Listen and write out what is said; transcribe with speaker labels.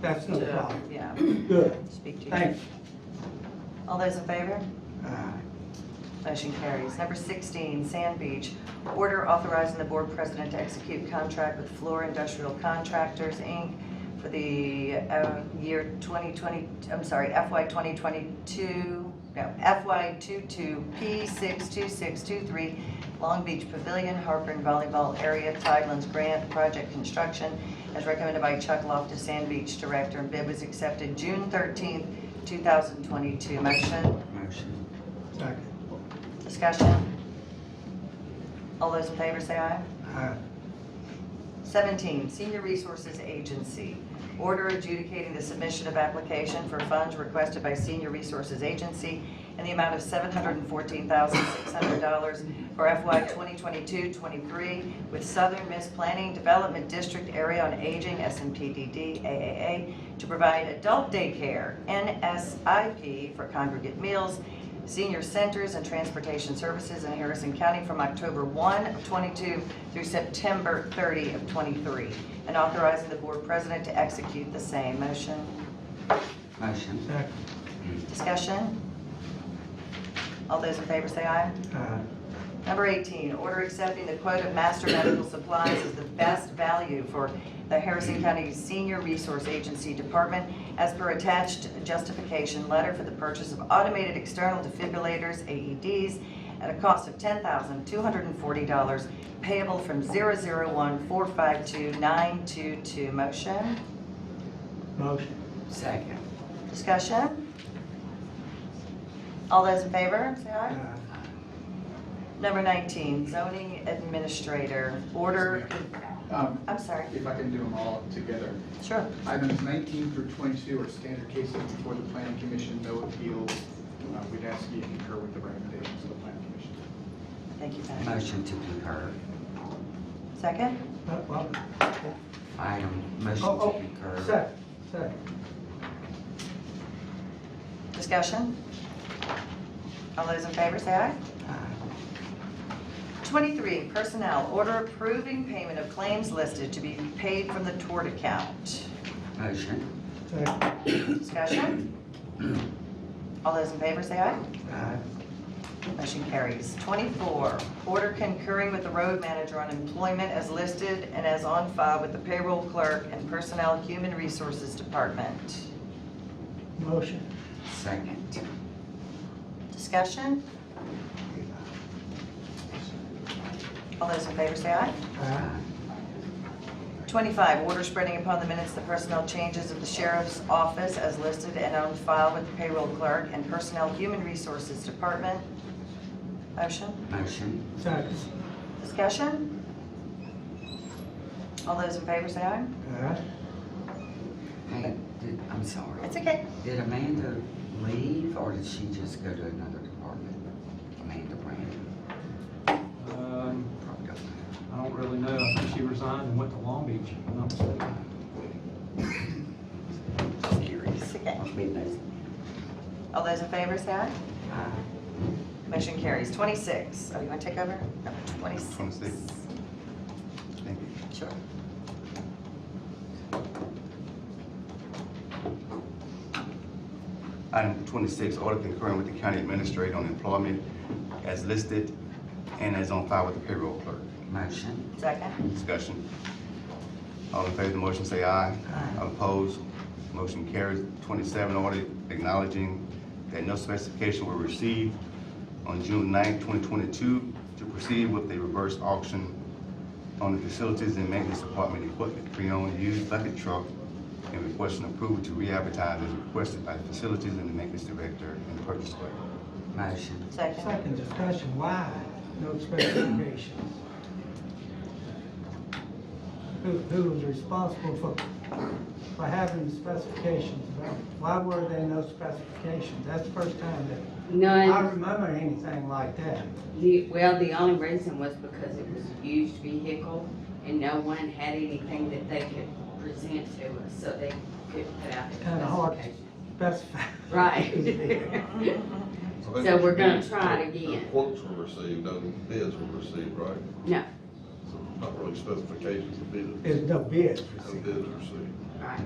Speaker 1: That's no
Speaker 2: to-
Speaker 1: problem.
Speaker 2: Yeah,
Speaker 1: Good,
Speaker 2: speak to you.
Speaker 1: thanks.
Speaker 2: All those in favor?
Speaker 1: Uh,
Speaker 2: Motion carries. Number 16, Sand Beach, order authorizing the board president to execute contract with Floor Industrial Contractors, Inc. for the uh, year 2020, I'm sorry, FY 2022, no, FY 22P62623, Long Beach Pavilion, Harper and Volleyball Area, Tidelands Grant, Project Construction, as recommended by Chuck Loftus, Sand Beach Director, and bid was accepted June 13th, 2022. Motion?
Speaker 3: Motion.
Speaker 1: Second.
Speaker 2: Discussion? All those in favor say aye.
Speaker 1: Uh,
Speaker 2: 17, Senior Resources Agency. Order adjudicating the submission of application for funds requested by Senior Resources Agency in the amount of $714,600 for FY 2022-23 with Southern Miss Planning Development District Area on Aging, SMPDD, AAA, to provide adult daycare, NSIP, for congregate meals, senior centers, and transportation services in Harrison County from October 1 of '22 through September 30 of '23, and authorizing the board president to execute the same. Motion?
Speaker 3: Motion.
Speaker 1: Second.
Speaker 2: Discussion? All those in favor say aye.
Speaker 1: Uh,
Speaker 2: Number 18, order accepting the quote of Master Medical Supplies as the best value for the Harrison County Senior Resource Agency Department as per attached justification letter for the purchase of automated external defibrillators, AEDs, at a cost of $10,240 payable from 001452922. Motion?
Speaker 1: Motion.
Speaker 3: Second.
Speaker 2: Discussion? All those in favor, say aye.
Speaker 1: Uh,
Speaker 2: Number 19, zoning administrator, order,
Speaker 4: Um,
Speaker 2: I'm sorry,
Speaker 4: If I can do them all together.
Speaker 2: sure.
Speaker 4: Items 19 through 22 are standard cases before the planning commission, no appeals. Uh, We'd ask you to concur with the recommendations of the planning commission.
Speaker 2: Thank you, Pat.
Speaker 3: Motion to concur.
Speaker 2: Second,
Speaker 1: uh, well,
Speaker 3: Item, motion
Speaker 1: Oh,
Speaker 3: to
Speaker 1: oh,
Speaker 3: concur.
Speaker 1: second, second.
Speaker 2: discussion? All those in favor, say aye.
Speaker 1: Uh,
Speaker 2: 23, personnel, order approving payment of claims listed to be paid from the tort account.
Speaker 3: Motion.
Speaker 1: Second.
Speaker 2: Discussion? All those in favor, say aye.
Speaker 1: Uh,
Speaker 2: Motion carries. 24, order concurring with the road manager on employment as listed and as on file with the payroll clerk and personnel human resources department.
Speaker 1: Motion.
Speaker 3: Second.
Speaker 2: Discussion? All those in favor say aye.
Speaker 1: Uh,
Speaker 2: 25, order spreading upon the minutes the personnel changes of the sheriff's office as listed and on file with the payroll clerk and personnel human resources department. Motion?
Speaker 3: Motion.
Speaker 1: Second.
Speaker 2: Discussion? All those in favor say aye.
Speaker 1: Uh,
Speaker 3: Hey, did, I'm sorry.
Speaker 2: It's okay.
Speaker 3: Did Amanda leave or did she just go to another department? Amanda Brandon?
Speaker 5: Um,
Speaker 3: Probably don't know.
Speaker 5: I don't really know. I think she resigned and went to Long Beach. if I'm not mistaken.
Speaker 3: Just curious.
Speaker 2: It's okay.
Speaker 3: Must be nice.
Speaker 2: All those in favor say aye.
Speaker 3: Aye.
Speaker 2: Motion carries. 26, oh, you want to take over? No, 26.
Speaker 6: 26. Thank you.
Speaker 2: Sure.
Speaker 6: Item 26, order concurring with the county administrator on employment as listed and as on file with the payroll clerk.
Speaker 3: Motion.
Speaker 2: Second?
Speaker 6: Discussion. All in favor of the motion, say aye.
Speaker 2: Aye.
Speaker 6: Opposed, motion carries. 27, order acknowledging that no specification were received on June 9, 2022 to proceed with a reverse auction on the facilities and maintenance department equipment, pre-owned used bucket truck, and requesting approval to re-advertise as requested by the facilities and the maintenance director and the purchase clerk.
Speaker 3: Motion.
Speaker 2: Second?
Speaker 1: Second discussion, why no specifications? Who, who was responsible for, for having specifications? Why were there no specifications? That's the first time that, I
Speaker 7: None,
Speaker 1: remember anything like that.
Speaker 7: the, well, the only reason was because it was a used vehicle and no one had anything that they could present to us, so they couldn't put out. the
Speaker 1: Kinda hard.
Speaker 7: specification.
Speaker 1: Specify.
Speaker 7: Right. So we're gonna try it again.
Speaker 8: The Quotes were received, no bids were received, right?
Speaker 7: No,
Speaker 8: So Not really specifications of bids,
Speaker 1: There's no bids
Speaker 8: no
Speaker 1: received.
Speaker 8: bids received.
Speaker 7: right.